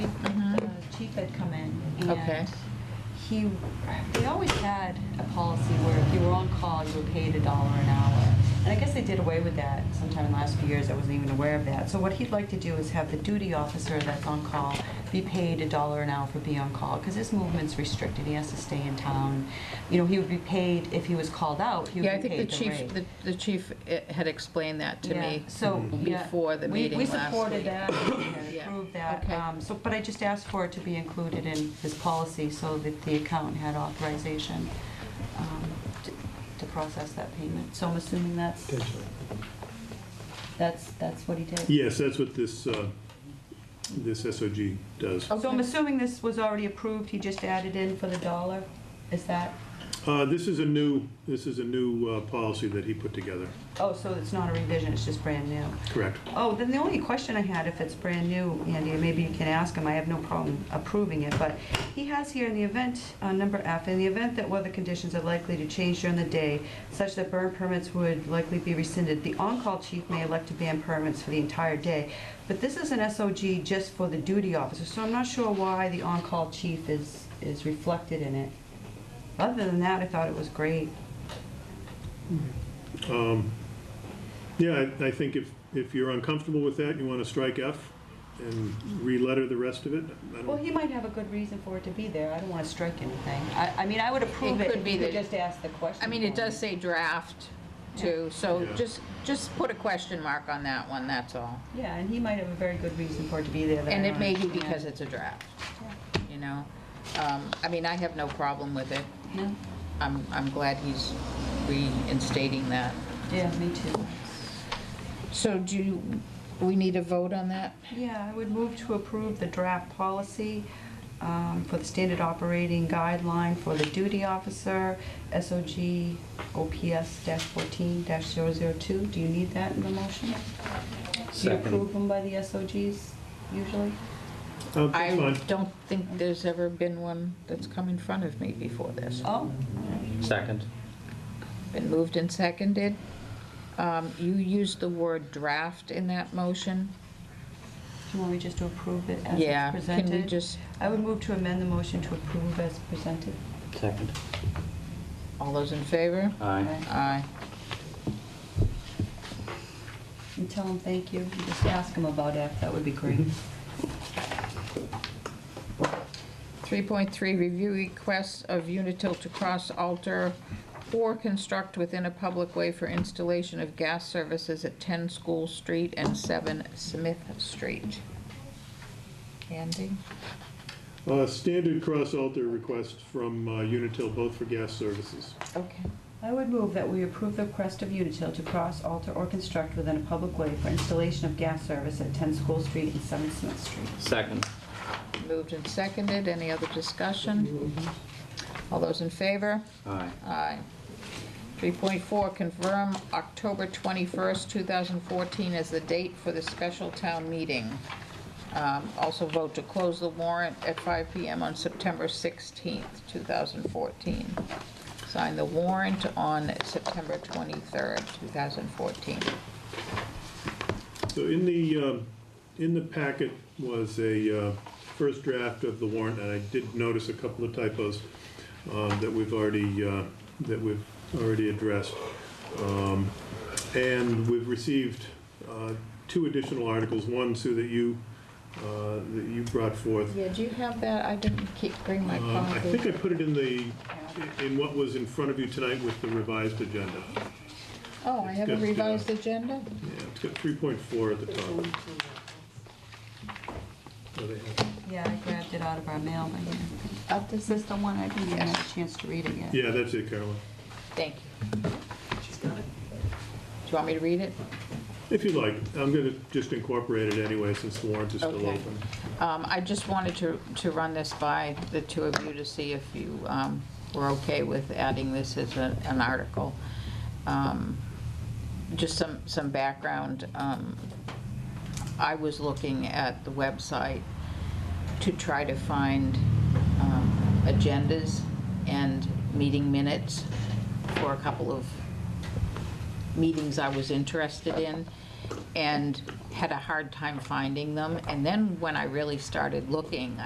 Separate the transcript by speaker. Speaker 1: Keith had come in.
Speaker 2: Okay.
Speaker 1: And he, they always had a policy where if you were on call, you were paid a dollar an hour. And I guess they did away with that sometime in the last few years. I wasn't even aware of that. So what he'd like to do is have the duty officer that's on call be paid a dollar an hour for being on call because his movement's restricted. He has to stay in town. You know, he would be paid, if he was called out, he would
Speaker 2: Yeah, I
Speaker 1: be
Speaker 2: think the
Speaker 1: paid the
Speaker 2: chief,
Speaker 1: rate.
Speaker 2: the- the chief eh, had explained that to
Speaker 1: Yeah,
Speaker 2: me.
Speaker 1: So,
Speaker 2: Mm-hmm.
Speaker 1: yeah.
Speaker 2: before the
Speaker 1: We-
Speaker 2: meeting
Speaker 1: We
Speaker 2: last
Speaker 1: supported
Speaker 2: week.
Speaker 1: that, and
Speaker 2: Yeah,
Speaker 1: approved that,
Speaker 2: okay.
Speaker 1: um, so, but I just asked for it to be included in his policy so that the accountant had authorization um, to- to process that payment. So I'm assuming that's, that's, that's what he did.
Speaker 3: Yes, that's what this, uh, this SOG does.
Speaker 1: So I'm assuming this was already approved, he just added in for the dollar, is that,
Speaker 3: Uh, This is a new, this is a new uh, policy that he put together,
Speaker 1: oh, so it's not a revision, it's just brand new?
Speaker 3: correct?
Speaker 1: Oh, then the only question I had, if it's brand new, Andy, and maybe you can ask him, I have no problem approving it, but he has here in the event, uh, number F, in the event that weather conditions are likely to change during the day, such that burn permits would likely be rescinded, the on-call chief may elect to ban permits for the entire day. But this is an SOG just for the duty officer, so I'm not sure why the on-call chief is, is reflected in it. Other than that, I thought it was great.
Speaker 3: Yeah, I- I think if, if you're uncomfortable with that, you want to strike F and re-letter the rest of it. I don't-
Speaker 1: Well, he might have a good reason for it to be there. I don't want to strike anything. I, I mean, I would approve
Speaker 2: It
Speaker 1: it
Speaker 2: could
Speaker 1: if
Speaker 2: be
Speaker 1: you could
Speaker 2: that-
Speaker 1: just ask the question.
Speaker 2: I mean, it
Speaker 1: for
Speaker 2: does say draft too, so
Speaker 3: Yeah.
Speaker 2: just, just put a question mark on that one, that's all.
Speaker 1: Yeah, and he might have a very good reason for it to be there. that I
Speaker 2: And it
Speaker 1: don't
Speaker 2: may be
Speaker 1: understand.
Speaker 2: because it's a draft, you know? Um, I mean, I have no problem with it.
Speaker 1: No?
Speaker 2: I'm, I'm glad he's reinstating that.
Speaker 1: Yeah, me too.
Speaker 2: So do, you- we need a vote on that?
Speaker 1: Yeah, I would move to approve the draft policy um, for the standard operating guideline for the duty officer, SOG OPS fourteen 2 Do you need that in the motion? Do you
Speaker 4: Second.
Speaker 1: approve them by the SOGs usually?
Speaker 3: Uh, That's
Speaker 2: I
Speaker 3: fine.
Speaker 2: don't think there's ever been one that's come in front of me before this.
Speaker 1: Oh,
Speaker 4: Second.
Speaker 2: Been moved and seconded. Um, You used the word draft in that motion?
Speaker 1: do you want me just to approve it as
Speaker 2: Yeah,
Speaker 1: it's presented?
Speaker 2: can we just,
Speaker 1: I would move to amend the motion to approve as presented.
Speaker 4: Second.
Speaker 2: all those in favor?
Speaker 4: Aye.
Speaker 2: Aye.
Speaker 1: And tell them thank you, and just ask them about F, that would be great.
Speaker 2: 3.3, review requests of Unitil to cross alter or construct within a public way for installation of gas services at 10 School Street and 7 Smith Street. Andy?
Speaker 3: Uh, Standard cross-alter request from uh, Unitil, both for gas services.
Speaker 2: Okay.
Speaker 1: I would move that we approve the request of Unitil to cross, alter, or construct within a public way for installation of gas service at 10 School Street and 7 Smith Street.
Speaker 4: Second.
Speaker 2: Moved and seconded, any other discussion? All those in favor?
Speaker 4: Aye.
Speaker 2: Aye. 3.4, confirm October 21st, 2014 as the date for the special town meeting. Um, Also vote to close the warrant at 5 PM on September 16th, 2014. Sign the warrant on September 23rd, 2014.
Speaker 3: So in the, um, in the packet was a uh, first draft of the warrant, and I did notice a couple of typos um, that we've already, uh, that we've already addressed. Um, And we've received uh, two additional articles, one, Sue, that you, uh, that you brought forth.
Speaker 2: Yeah, do you have that? I didn't keep, bring my
Speaker 3: Um, I think
Speaker 2: copy.
Speaker 3: I put it in the, in what was in front of you tonight with the revised agenda.
Speaker 2: Oh, I have a
Speaker 3: It's got, uh,
Speaker 2: revised agenda?
Speaker 3: Yeah, it's got 3.4 at the top. Oh, they have-
Speaker 1: Yeah, I grabbed it out of our mail, but yeah. Uh, This is the one I didn't even have a chance to read it yet.
Speaker 3: Yeah, that's it, Carolyn.
Speaker 2: Thank you. Do you want me to read it?
Speaker 3: If you like, I'm going to just incorporate it anyway, since the warrant is still
Speaker 2: Okay.
Speaker 3: open.
Speaker 2: Um, I just wanted to, to run this by the two of you to see if you, um, were okay with adding this as a, an article. Um, Just some, some background, um, I was looking at the website to try to find, um, agendas and meeting minutes for a couple of meetings I was interested in and had a hard time finding them. And then when I really started looking,